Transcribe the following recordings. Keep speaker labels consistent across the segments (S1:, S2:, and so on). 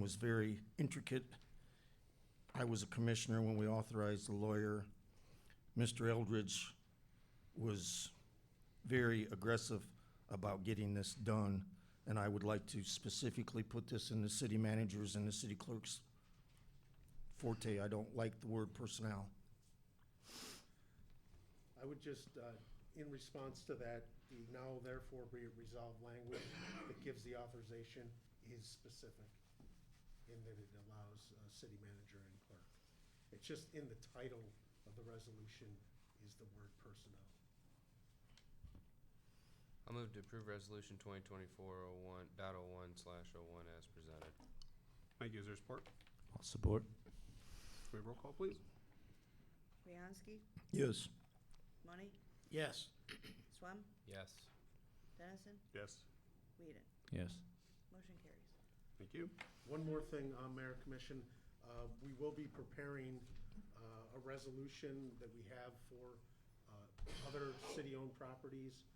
S1: was very intricate. I was a commissioner when we authorized the lawyer. Mr. Eldridge was very aggressive about getting this done, and I would like to specifically put this in the city manager's and the city clerk's forte. I don't like the word personnel.
S2: I would just, uh, in response to that, the now therefore be it resolved language that gives the authorization is specific in that it allows uh, city manager and clerk. It's just in the title of the resolution is the word personnel.
S3: I'll move to approve resolution twenty twenty-four oh one, dot oh one slash oh one as presented.
S4: Thank you. Is there support?
S5: I'll support.
S4: Can we have roll call, please?
S6: Bianski,
S1: Yes.
S6: Money,
S2: Yes.
S6: Swam,
S3: Yes.
S6: Dennison,
S4: Yes.
S6: Whedon.
S5: Yes.
S6: Motion carries.
S4: Thank you.
S2: One more thing, uh, Mayor Commission, uh, we will be preparing uh, a resolution that we have for uh, other city-owned properties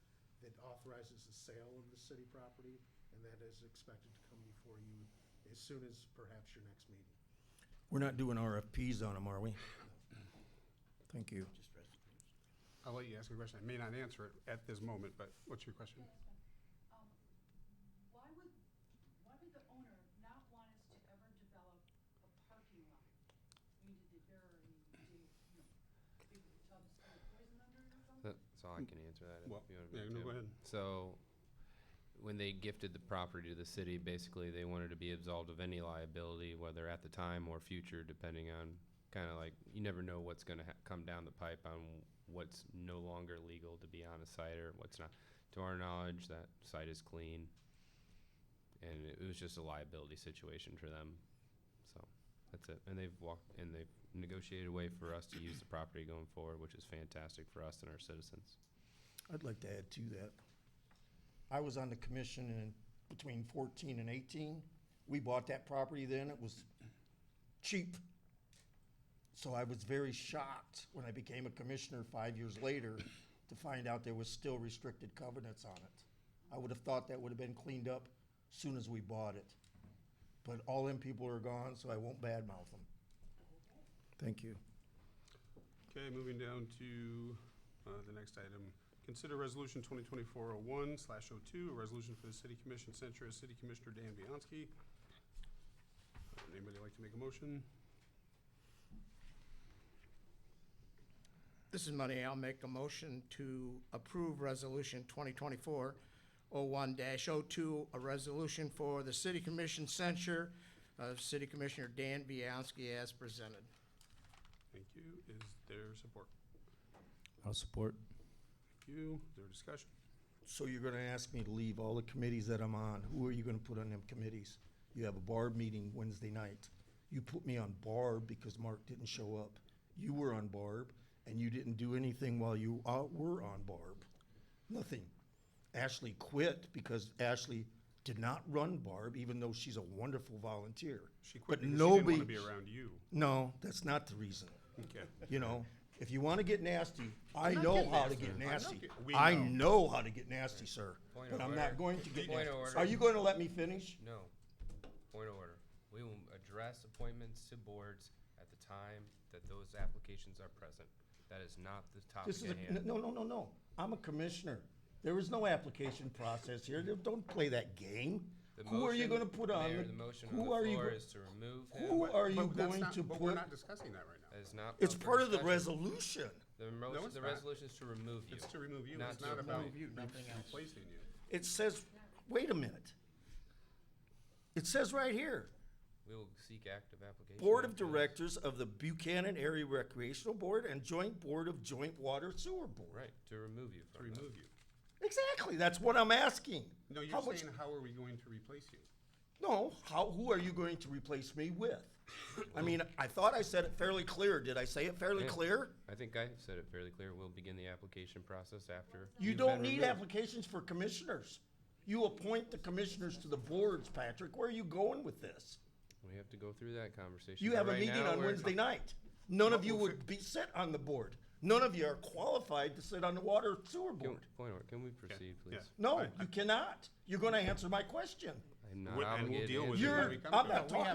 S2: that authorizes the sale of the city property, and that is expected to come before you as soon as perhaps your next meeting.
S1: We're not doing RFPs on them, are we? Thank you.
S4: I'll let you ask a question. I may not answer it at this moment, but what's your question?
S7: Um, Why would, why would the owner not want us to ever develop a parking lot? I mean, did they bury, did, you know, big tubs of poison under it or something?
S3: That's all I can answer that. if
S4: Well,
S3: you want me
S4: yeah,
S3: to.
S4: no, go ahead.
S3: So, when they gifted the property to the city, basically they wanted to be absolved of any liability, whether at the time or future, depending on kind of like you never know what's going to ha- come down the pipe on what's no longer legal to be on a site or what's not. To our knowledge, that site is clean, and it was just a liability situation for them. So that's it. And they've walked and they've negotiated a way for us to use the property going forward, which is fantastic for us and our citizens.
S1: I'd like to add to that. I was on the commission in between fourteen and eighteen. We bought that property then, it was cheap. So I was very shocked when I became a commissioner five years later to find out there was still restricted covenants on it. I would have thought that would have been cleaned up soon as we bought it. But all them people are gone, so I won't badmouth them. Thank you.
S4: Okay, moving down to uh, the next item. Consider Resolution 2024-01/02, slash oh a resolution for the City Commission sent to City Commissioner Dan Bianski. Uh, would Anybody like to make a motion?
S8: This is Money. I'll make a motion to approve Resolution 2024-01-02, a resolution for the City Commission censure of City Commissioner Dan Bianski as presented.
S4: Thank you. Is there support?
S5: I'll support.
S4: Thank you. Is there discussion?
S1: So you're gonna ask me to leave all the committees that I'm on, who are you gonna put on them committees? You have a bar meeting Wednesday night. You put me on Barb because Mark didn't show up. You were on Barb, and you didn't do anything while you uh, were on Barb. Nothing. Ashley quit because Ashley did not run Barb, even though she's a wonderful volunteer.
S4: She
S1: But
S4: quit because she didn't want
S1: nobody-
S4: to be around you.
S1: No, that's not the reason.
S4: Okay.
S1: You know, if you wanna get nasty, I know
S4: getting
S1: how to
S4: nasty.
S1: get
S4: I'm not
S1: nasty.
S4: get- we
S1: I
S4: know.
S1: know how to get nasty, sir,
S3: Point
S1: but
S3: of
S1: I'm not
S3: order.
S1: going to get
S3: Point
S1: nasty.
S3: of order.
S1: Are you gonna let me finish?
S3: No. Point of order. We will address appointments to boards at the time that those applications are present. That is not the topic
S1: This is,
S3: at
S1: a-
S3: hand.
S1: no, no, no, no. I'm a commissioner. There is no application process here. Don't- Don't play that game.
S3: The
S1: Who are you
S3: motion-
S1: gonna put on?
S3: Mayor,
S1: the-
S3: the motion
S1: who
S3: on the
S1: are you
S3: floor
S1: go-
S3: is to remove him.
S1: Who are you
S4: But that's
S1: going
S4: not-
S1: to
S4: But we're
S1: put?
S4: not discussing that right now.
S3: That is not.
S1: It's
S3: up for
S1: part of the
S3: discussion.
S1: resolution.
S3: The motion,
S4: it's
S3: the
S4: not.
S3: resolution is to remove you.
S4: It's to remove you.
S3: Not
S4: It's
S3: to
S4: not about
S3: appoint.
S4: re-
S8: nothing else.
S4: replacing you.
S1: It says, wait a minute. It says right here,
S3: We will seek active application.
S1: Board of
S3: after this.
S1: Directors of the Buchanan Area Recreational Board and Joint Board of Joint Water Sewer Board.
S3: Right, to remove you
S4: To
S3: from that.
S4: remove you.
S1: Exactly, that's what I'm asking.
S4: No,
S1: How
S4: you're
S1: much-
S4: saying, how are we going to replace you?
S1: No, how, who are you going to replace me with? I mean, I thought I said it fairly clear. Did I say it fairly
S3: Yeah.
S1: clear?
S3: I think I said it fairly clear. We'll begin the application process after.
S1: You
S3: you've
S1: don't
S3: been
S1: need
S3: removed.
S1: applications for commissioners. You appoint the commissioners to the boards, Patrick. Where are you going with this?
S3: We have to go through that conversation.
S1: You
S3: but
S1: have a
S3: right
S1: meeting
S3: now
S1: on
S3: we're-
S1: Wednesday night. None of you would be sit on the board. None of you are qualified to sit on the water sewer
S3: Can-
S1: board.
S3: Point of order. Can we proceed,
S4: Yeah.
S3: please?
S1: No, you cannot. You're gonna answer my question.
S3: I'm not
S4: Wi- and we'll
S3: obligated to
S4: deal with
S3: answer
S4: it when
S3: that.
S1: You're,
S4: we come to
S1: I'm
S4: that.
S1: not talking